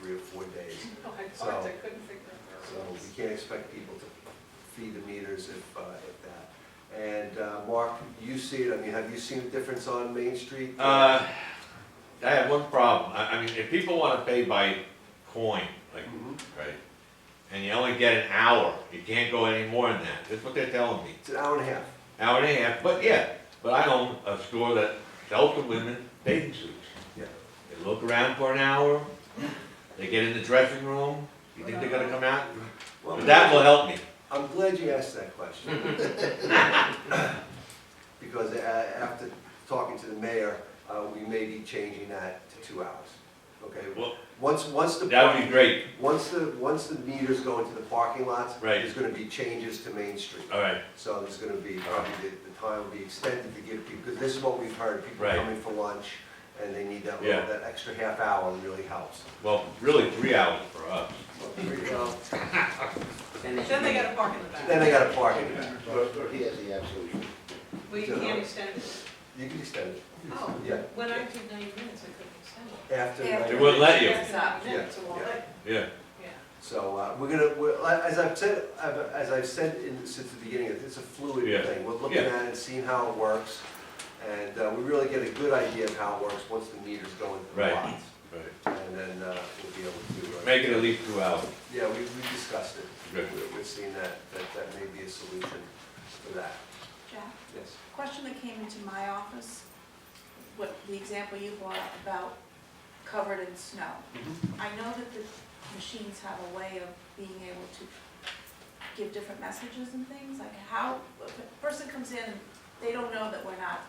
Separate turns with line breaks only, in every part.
three or four days.
Oh, I
So-
thought, I couldn't figure out.
So we can't expect people to feed the meters if, uh, if that. And uh, Mark, you see it, I mean, have you seen a difference on Main Street?
Uh, I have one problem. I, I mean, if people wanna pay by coin, like,
Mhm.
right? And you only get an hour, you can't go any more than that. That's what they're telling me.
It's an hour and a half.
Hour and a half, but yeah, but I own a store that sells to women bathing suits.
Yeah.
They look around for an hour, they get in the dressing room, you think they're gonna come out?
Well,
But that will help me.
I'm glad you asked that question. Because a- after talking to the mayor, uh, we may be changing that to two hours, okay?
Well,
Once, once the.
that would be great.
Once the, once the meters go into the parking lots.
Right.
There's gonna be changes to Main Street.
All right,
So there's gonna be, probably the, the time will be extended to give people, because this is what we've heard, people
Right.
coming for lunch, and they need that
Yeah.
little, that extra half hour really helps.
well, really three hours for us.
Well, there you go.
Then they gotta park in the
Then
back.
they gotta park it back.
He has the absolute.
We can't extend it.
You can extend it,
Oh,
yeah,
when I did ninety minutes, I couldn't extend it.
after.
Yeah.
They wouldn't let you.
That's not meant to
Yeah,
all
yeah.
that,
Yeah,
yeah.
So, uh, we're gonna, we're, like- as I've said, I've- as I've said in, since the beginning, it's a
Yeah.
fluid thing. We're looking
Yeah.
at it, seeing how it works, and, uh, we really get a good idea of how it works once the meters go into the
Right.
lots.
right.
And then, uh, we'll be able to. uh,
Make it at least two hours.
Yeah, we, we discussed it.
Good.
We- We've seen that, that, that may be a solution for that.
Jack,
Yes.
question that came into my office, what, the example you brought up about covered in snow.
Mm-hmm.
I know that the machines have a way of being able to give different messages and things, like how, if a person comes in, and they don't know that we're not,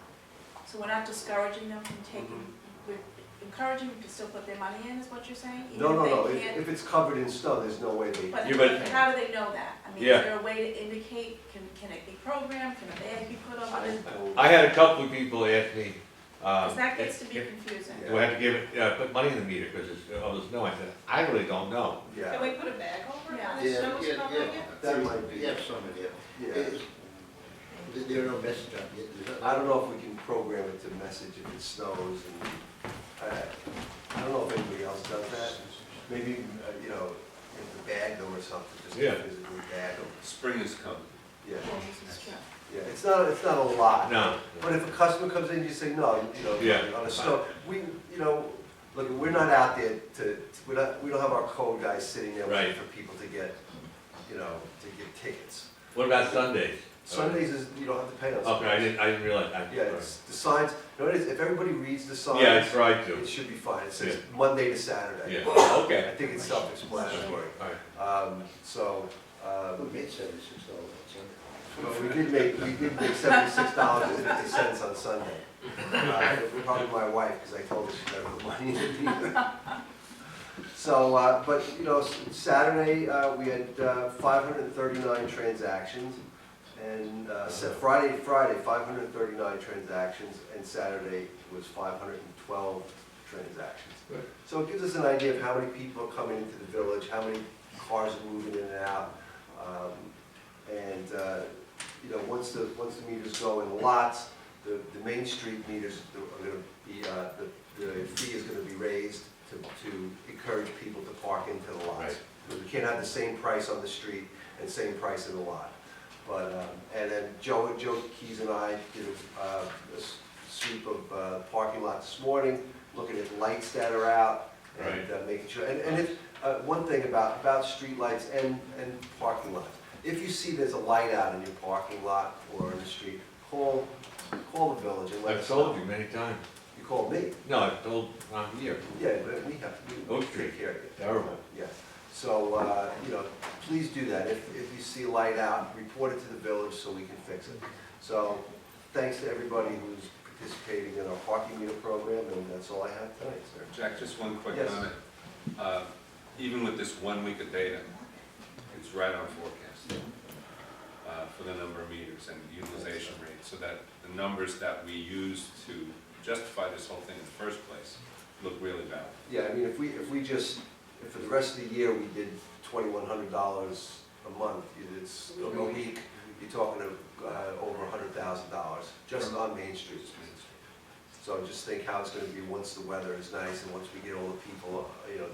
so we're not discouraging them from taking,
Mm-hmm.
we're encouraging them to still put their money in, is what you're saying? even
No, no,
if they
no, if,
can't-
if it's covered in snow, there's no way they,
But
Yeah, but-
how do they know that? I mean,
Yeah.
is there a way to indicate, can, can it be programmed, can a bag be put on it?
I had a couple of people ask me, um.
Because that gets to
if-
be confusing.
Do I have to give, it- uh, put money in the meter because it's, oh, there's no, I said, I really don't know.
Can
yeah,
we put a bag over it
Yeah.
when the snow's covering it?
That might be-
We have some of them.
yeah.
It's- there- There are no message up yet. There's not-
I don't know if we can program it to message if it snows and, I, I don't know if anybody else does that. Maybe, uh, you know, if the bag though or something, just
Yeah.
physically bag them,
Spring is coming.
yeah,
Well, this is true.
yeah. It's not, it's not a lot.
No.
But if a customer comes in, you say, no, you
Yeah.
know, on a snow, we, you know, look, we're not out there to, we're not, we don't have our code guys sitting there waiting
Right.
for people to get, you know, to get tickets.
What about Sundays?
Sundays is, you don't have to pay on
Okay, I
Sundays.
didn't, I didn't realize that.
Yeah, it's, the signs, you know, it is, if everybody reads the signs,
Yeah, I tried to.
it should be fine, it says
Yeah.
Monday to Saturday.
Yeah,
I
okay.
think it's self-explanatory,
All right.
um, so,
We
um,
made seventy-six dollars on Sunday.
But we did make, we did make seventy-six dollars and fifty cents on Sunday. Uh, Probably my wife, because I told her she never put money in it either. So, uh, but, you know, s- Saturday, uh, we had five hundred and thirty-nine transactions. And uh, Sa- Friday, Friday, five hundred and thirty-nine transactions, and Saturday was five hundred and twelve transactions.
Good.
So it gives us an idea of how many people are coming into the village, how many cars are moving in and out. Um, And, uh, you know, once the, once the meters go in lots, the, the Main Street meters are gonna be, uh, the, the fee is gonna be raised to, to encourage people to park into the lots.
Right.
Because we can't have the same price on the street and same price in the lot. But, um, and then Joe, Joe Keys and I did uh, a s- sweep of uh, parking lot this morning, looking at lights that are out and uh, making sure, and, and if, uh, one thing about, about streetlights and, and parking lots. If you see there's a light out in your parking lot or in the street, call, call the village and let
I've
us know.
told you many times.
You call me,
No, I've told Ron here.
yeah, but we have, we we
Oak Tree.
take care of you.
Terrible.
Yeah, so, uh, you know, please do that. If, if you see a light out, report it to the village so we can fix it. So, thanks to everybody who's participating in our parking meter program, and that's all I have tonight, sir.
Jack, just one quick
Yes.
comment. Uh, Even with this one week of data, it's right on forecast uh, for the number of meters and utilization rate, so that the numbers that we used to justify this whole thing in the first place look really valid.
Yeah, I mean, if we, if we just, if for the rest of the year, we did twenty-one hundred dollars a month, it's, a week, you're talking of, uh, over a hundred thousand dollars, just on Main Street. So just think how it's gonna be once the weather is nice and once we get all the people uh,